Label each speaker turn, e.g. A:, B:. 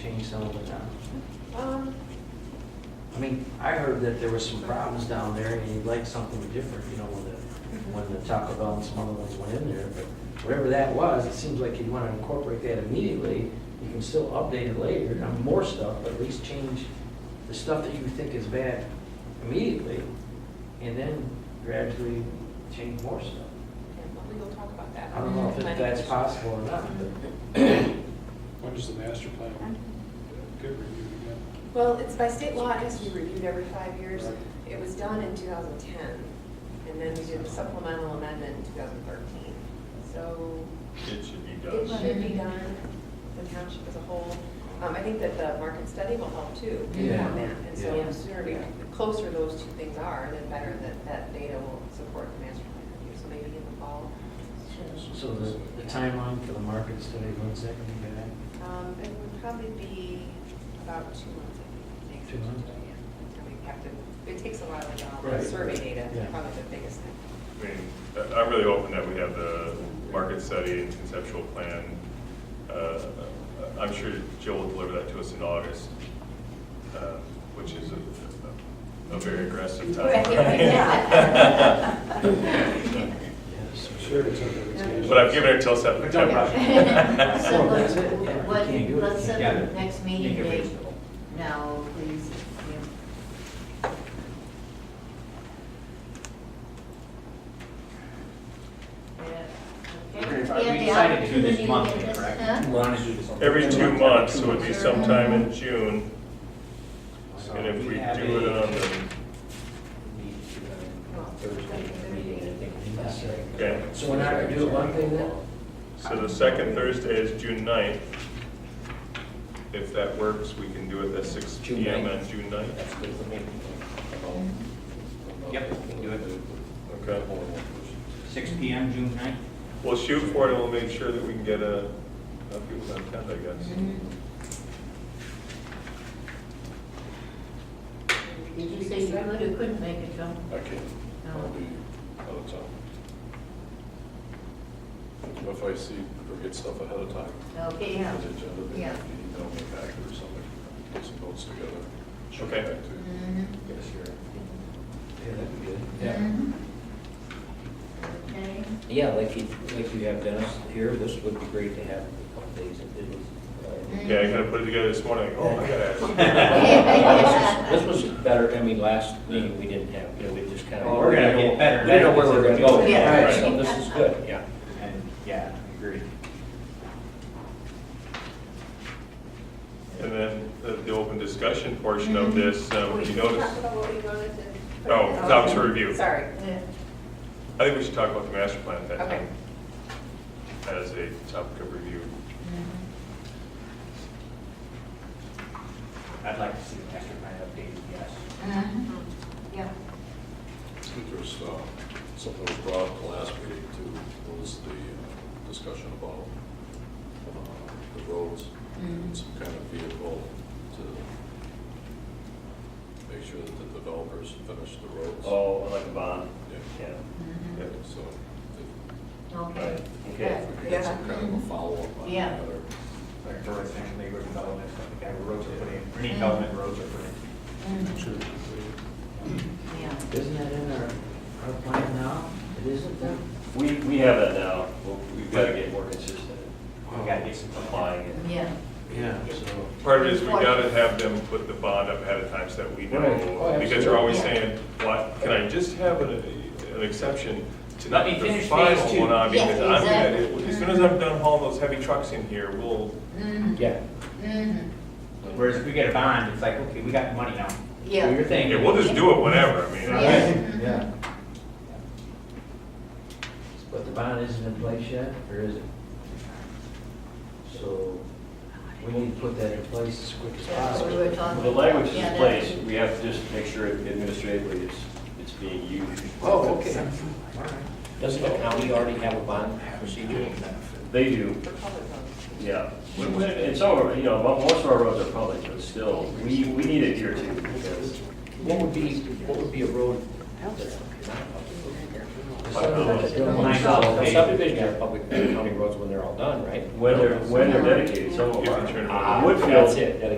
A: change some of it now?
B: Um,
A: I mean, I heard that there was some problems down there and you'd like something different, you know, when the, when the Taco Bell and some other ones went in there. But whatever that was, it seems like you'd want to incorporate that immediately. You can still update it later, have more stuff, but at least change the stuff that you think is bad immediately. And then gradually change more stuff.
B: yeah, well, we will talk about that.
A: I don't know if
B: Planning
A: that's
B: commission.
A: possible or not, but.
C: When is the master plan get reviewed again?
B: Well, it's by state law, it has to be reviewed every five years. It was done in 2010, and then we did a supplemental amendment in 2013. So
D: It should be
B: it
D: done.
B: should be done, the township as a whole. Um, I think that the market study will help too,
A: Yeah.
B: on that. And so
A: Yeah.
B: the sooner we, the closer those two things are, then better that that data will support the master plan review. So maybe in the fall.
A: So the, the timeline for the market study, when's that going to be back?
B: Um, It would probably be about two months, I think.
A: Two months?
B: Yeah. And we have to, it takes a while to get all
A: Right.
B: the survey data,
A: Yeah.
B: probably the biggest thing.
D: I mean, I- I'm really hoping that we have the market study and conceptual plan. Uh, I'm sure Jill will deliver that to us in August, uh, which is a- a a very aggressive timeline.
A: Yes.
C: Sure, it's under vacation.
D: But I've given her till September.
E: So
A: Well,
E: let's,
A: that's it. Yeah, you
E: what,
A: can't do it.
E: let's set
A: Yeah.
E: the next meeting
A: Make it
E: date
A: reasonable.
E: now, please. Yeah. Yeah, okay.
F: Okay,
E: Yeah,
F: we
E: the
F: decided to do this
E: opportunity
F: monthly,
E: to-
F: correct?
E: huh?
F: wanted to do this.
D: Every two months, so it'd be sometime in June,
A: So
D: and if we
A: have
D: do it
A: a-
D: on the, okay.
A: So we're not gonna do it one thing then?
D: So the second Thursday is June 9th. If that works, we can do it at six
F: June
D: PM
F: 9th.
D: on June 9th.
F: That's good for me. Yep, we can do it.
D: Okay.
F: Six P M, June ninth?
D: We'll shoot for it and we'll make sure that we can get a, a few of them attend, I guess.
E: Mhm. Did you say you could or couldn't make it, John?
G: Okay.
H: Oh.
G: I'll be out of town. If I see or get stuff ahead of time.
E: Okay, yeah.
G: for the agenda, then
E: Yeah.
G: you email me back or something, put some notes together. shoot
D: Okay.
G: back to
E: Mhm.
G: you.
E: Mhm. Okay.
F: Yeah, like you, like you have Dennis here, this would be great to have a couple days of business. uh,
E: Mhm.
D: Yeah, I gotta put it together this morning, oh, I gotta ask.
E: Yeah.
F: This was better, I mean, last meeting we didn't have, you know, we just kind of.
A: Oh, we're gonna get better.
F: We know where we're gonna go.
E: Yeah.
F: Right, So this is good, yeah.
H: And, yeah, I agree.
D: And then the, the open discussion portion of this, um,
B: Mm-hmm. We
D: you
B: Talk
D: notice,
B: about what we wanted to. put
D: Oh,
B: in.
D: it's up for review.
B: Sorry.
E: Yeah.
D: I think we should talk about the master plan at that
B: Okay.
D: time. As a topic of review.
E: Mhm.
H: I'd like to see the master plan updated, yes.
B: Mm-hmm.
E: Mhm. Yeah.
G: There's uh, something that was brought up the last meeting too, was the uh, discussion about uh, the roads and some kind of vehicle to make sure that the developers finish the roads.
D: Oh, like a bond?
G: Yeah.
D: Yeah.
E: Mhm.
D: Yeah.
G: So if
E: Okay.
G: if we
E: Good.
G: could get some kind of a follow-up on
E: Yeah.
G: that or
H: Like for residential neighborhood development, like the guy who roads are put in, any
F: Mm.
H: development roads are put in.
E: Mhm. Yeah.
A: Isn't that in our, our plan now? It isn't then?
I: We, we have that now, Well, we've got to get more consistent
H: We gotta get some
F: Oh.
I: applying it.
E: Yeah.
A: Yeah, so.
D: Part of it is we gotta have them put the bond up ahead of time so that we know, because they're always saying, why, can I just have an, an exception to not
H: Let me
D: the
H: finish phase
D: final
H: two."
D: one on?
E: Yes,
D: Because I'm
E: exactly.
D: gonna, as soon as I'm done hauling those heavy trucks in here, we'll,
E: Mhm.
F: Yeah.
E: Mhm.
H: Whereas if we get a bond, it's like, okay, we got the money now.
E: Yeah.
H: Do your thing.
D: yeah, we'll just do it whenever, I mean.
E: Yeah. Mhm.
A: Yeah. But the bond isn't in place yet, or is it? So we need to put that in place as quick as
E: That's what we
A: possible.
E: were talking
I: The language is
E: about.
I: in
E: Yeah,
I: place,
E: that-
I: we have to just make sure administratively it's, it's being used.
A: Oh, okay.
F: Doesn't the county already have a bond procedure?
I: They do,
B: For public votes.
I: yeah. We- we- And some of, our- you know, mo- most of our roads are public, but still, we, we need it here too, because
F: What would be, what would be a road?
A: As
J: Nine
F: thousand
J: thousand
F: pages.
J: subdivision of public county roads when they're all done, right?
I: When they're, when they're dedicated, some of
D: If you
I: them
D: turn it
I: are.
D: over.
I: Woodfield-
J: That's it, dedicated.